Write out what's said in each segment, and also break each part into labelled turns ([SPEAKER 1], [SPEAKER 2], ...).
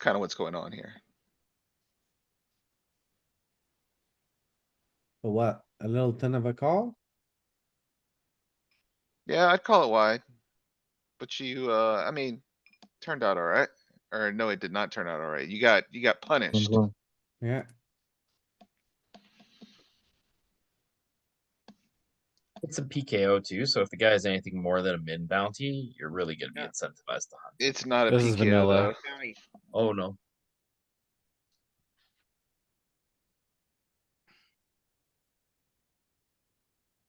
[SPEAKER 1] kind of what's going on here.
[SPEAKER 2] So What, a little ten of a call?
[SPEAKER 1] Yeah, I'd call it wide. But you, uh, I mean, turned out alright, or no, it did not turn out alright. You got, you got punished.
[SPEAKER 3] Mm-hmm.
[SPEAKER 2] Yeah,
[SPEAKER 4] It's a PKO too, so if the guy has anything more than a min bounty, you're really gonna be
[SPEAKER 1] Yeah.
[SPEAKER 4] incentivized to hunt.
[SPEAKER 1] It's not a
[SPEAKER 5] This is vanilla.
[SPEAKER 1] PKO
[SPEAKER 4] Oh no,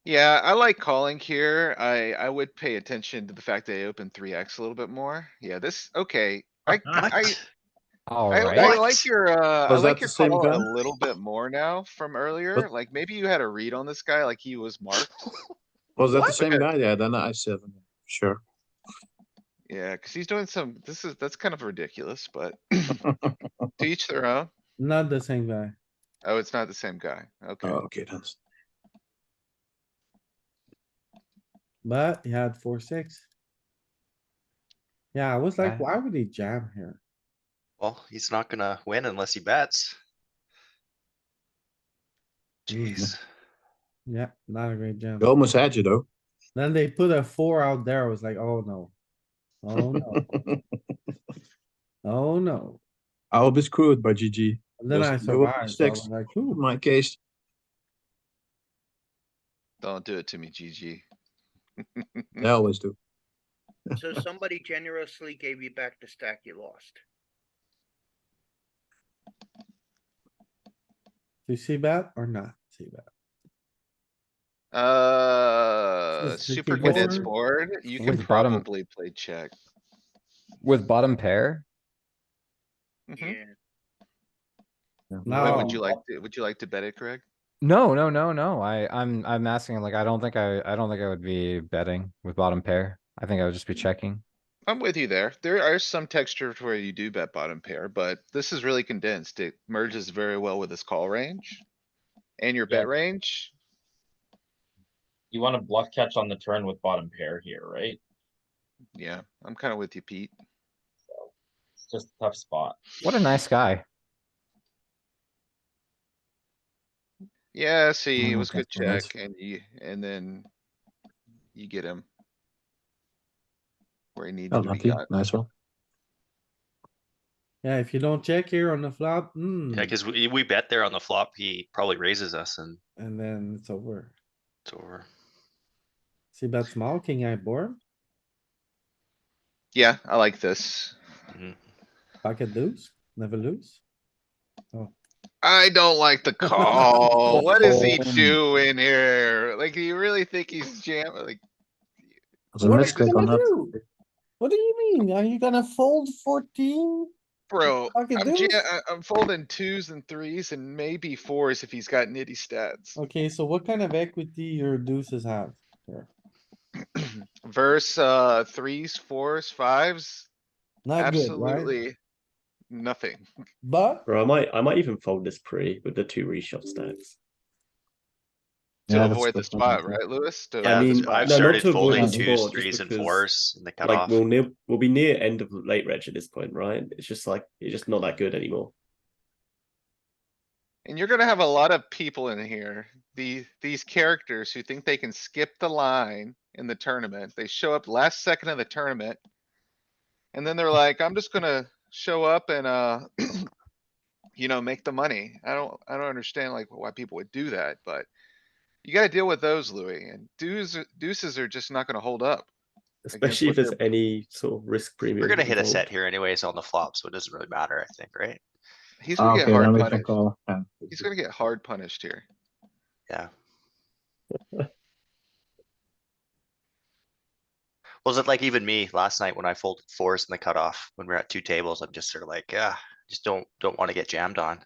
[SPEAKER 1] Yeah, I like calling here. I, I would pay attention to the fact that I opened three X a little bit more. Yeah, this, okay. I, I, I,
[SPEAKER 5] Alright.
[SPEAKER 1] I like your, uh, I
[SPEAKER 3] Was
[SPEAKER 1] like
[SPEAKER 3] that
[SPEAKER 1] your
[SPEAKER 3] the same
[SPEAKER 1] call a
[SPEAKER 3] gun?
[SPEAKER 1] little bit more now from earlier. Like, maybe you had a read on this guy, like he was marked.
[SPEAKER 3] Was that the
[SPEAKER 1] What?
[SPEAKER 3] same guy? Yeah, then I seven, sure.
[SPEAKER 1] Yeah, cuz he's doing some, this is, that's kind of ridiculous, but to each their own.
[SPEAKER 2] not the same guy.
[SPEAKER 1] Oh, it's not the same guy. Okay.
[SPEAKER 3] Oh, okay, then.
[SPEAKER 2] But he had four, six. Yeah, I was like,
[SPEAKER 5] Yeah.
[SPEAKER 2] why would he jam here?
[SPEAKER 6] Well, he's not gonna win unless he bets.
[SPEAKER 2] Mm.
[SPEAKER 6] Jeez.
[SPEAKER 7] Mm-hmm.
[SPEAKER 2] Yeah, not a great jam.
[SPEAKER 3] You almost had you though.
[SPEAKER 2] Then they put a four out there. I was like, oh no. Oh no, oh no.
[SPEAKER 3] I will be screwed by GG.
[SPEAKER 2] And Then
[SPEAKER 3] Was-
[SPEAKER 2] I
[SPEAKER 3] you were
[SPEAKER 2] survived. so I
[SPEAKER 3] six.
[SPEAKER 2] was like, hmm,
[SPEAKER 3] In
[SPEAKER 2] ooh,
[SPEAKER 3] my case,
[SPEAKER 1] Don't do it to me, GG.
[SPEAKER 3] they always do.
[SPEAKER 8] So somebody generously gave you back the stack you lost.
[SPEAKER 2] do you see that or not see that?
[SPEAKER 1] Uh,
[SPEAKER 2] Is the
[SPEAKER 1] super
[SPEAKER 2] keyboard-
[SPEAKER 1] condensed board, you can
[SPEAKER 5] With bottom-
[SPEAKER 1] probably play check.
[SPEAKER 5] With bottom pair,
[SPEAKER 1] Mhm.
[SPEAKER 8] Yeah,
[SPEAKER 1] Wait, Would you
[SPEAKER 2] No.
[SPEAKER 1] like, to? would you like to bet it, Greg?
[SPEAKER 5] no, no, no, no. I, I'm, I'm asking, like, I don't think I, I don't think I would be betting with bottom pair. I think I would just be checking.
[SPEAKER 1] I'm with you there. There are some textures where you do bet bottom pair, but this is really condensed. It merges very well with this call range. And your
[SPEAKER 4] Yeah.
[SPEAKER 1] bet range.
[SPEAKER 4] you want to bluff catch on the turn with bottom pair here, right?
[SPEAKER 1] Yeah, I'm kinda with you, Pete.
[SPEAKER 4] It's just a tough spot.
[SPEAKER 5] What a nice guy.
[SPEAKER 1] Yeah, see, it
[SPEAKER 5] Mm,
[SPEAKER 1] was good
[SPEAKER 5] okay, nice.
[SPEAKER 1] check and you, and then you get him. Where he needs
[SPEAKER 3] Oh,
[SPEAKER 1] to be
[SPEAKER 3] lucky,
[SPEAKER 1] got.
[SPEAKER 3] nice one.
[SPEAKER 2] Yeah, if you don't check here on the flop, hmm,
[SPEAKER 6] Yeah, cuz we, we bet there on the flop, he probably raises us and
[SPEAKER 2] and then it's over.
[SPEAKER 6] it's over.
[SPEAKER 2] See that small king I board,
[SPEAKER 1] Yeah, I like this.
[SPEAKER 6] Mhm.
[SPEAKER 2] pocket deuce, never lose.
[SPEAKER 1] I don't like the call. What is he
[SPEAKER 5] Oh.
[SPEAKER 1] doing here? Like, do you really think he's jam, like,
[SPEAKER 3] It was a
[SPEAKER 1] What are you
[SPEAKER 3] misclick on
[SPEAKER 9] gonna
[SPEAKER 3] that.
[SPEAKER 9] do? What do you mean? Are you gonna fold fourteen?
[SPEAKER 1] bro,
[SPEAKER 9] Fucking
[SPEAKER 1] I'm ja-
[SPEAKER 9] deuce.
[SPEAKER 1] I- I'm folding twos and threes and maybe fours if he's got nitty stats.
[SPEAKER 2] Okay, so what kind of equity your deuces have?
[SPEAKER 1] Verse, uh, threes, fours, fives,
[SPEAKER 2] Not good, right?
[SPEAKER 1] absolutely nothing.
[SPEAKER 2] But
[SPEAKER 7] Or I might, I might even fold this pre with the two reshove stacks.
[SPEAKER 3] Yeah,
[SPEAKER 1] To
[SPEAKER 3] that's-
[SPEAKER 1] avoid the
[SPEAKER 3] that's what I'm
[SPEAKER 1] spot, right, Louis? To-
[SPEAKER 6] Yeah,
[SPEAKER 7] I
[SPEAKER 6] that's
[SPEAKER 7] mean,
[SPEAKER 6] why I've
[SPEAKER 7] no, not
[SPEAKER 6] started
[SPEAKER 7] to avoid
[SPEAKER 6] folding
[SPEAKER 7] the
[SPEAKER 6] twos,
[SPEAKER 7] board, just
[SPEAKER 6] threes and
[SPEAKER 7] because,
[SPEAKER 6] fours in the
[SPEAKER 7] Like
[SPEAKER 6] cutoff.
[SPEAKER 7] we'll near, we'll be near end of late reg at this point, right? It's just like it's just not that good anymore.
[SPEAKER 1] And you're gonna have a lot of people in here, the, these characters who think they can skip the line in the tournament. They show up last second of the tournament. And then they're like, I'm just gonna show up and, uh, you know, make the money. I don't, I don't understand like why people would do that, but you gotta deal with those, Louis, and deuces, deuces are just not gonna hold up.
[SPEAKER 7] Especially
[SPEAKER 1] what
[SPEAKER 7] if there's any sort of risk premium.
[SPEAKER 6] We're gonna hit a set
[SPEAKER 7] involved.
[SPEAKER 6] here anyways on the flop, so it doesn't really matter, I think, right?
[SPEAKER 1] He's
[SPEAKER 3] Ah,
[SPEAKER 1] gonna get
[SPEAKER 3] okay, then
[SPEAKER 1] hard
[SPEAKER 3] we can
[SPEAKER 1] punished.
[SPEAKER 3] call. Yeah.
[SPEAKER 1] He's gonna get hard punished here.
[SPEAKER 6] Yeah. Was it like even me last night when I folded fours in the cutoff, when we we're at two tables, I'm just sort of like, yeah, just don't, don't wanna get jammed on.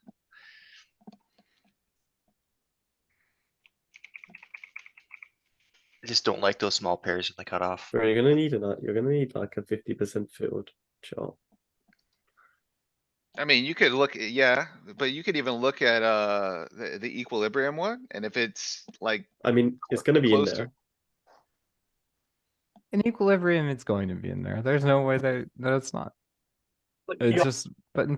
[SPEAKER 6] I just don't like those small pairs in the cutoff.
[SPEAKER 7] Right, You're gonna need a, you're gonna need like a fifty percent field chart.
[SPEAKER 1] I mean, you could look, yeah, but you could even look at, uh, the, the equilibrium one, and if it's like,
[SPEAKER 7] I mean, it's gonna be in
[SPEAKER 1] Close to-
[SPEAKER 7] there.
[SPEAKER 5] In equilibrium, it's going to be in there. There's no way that, that it's not. It's just, but in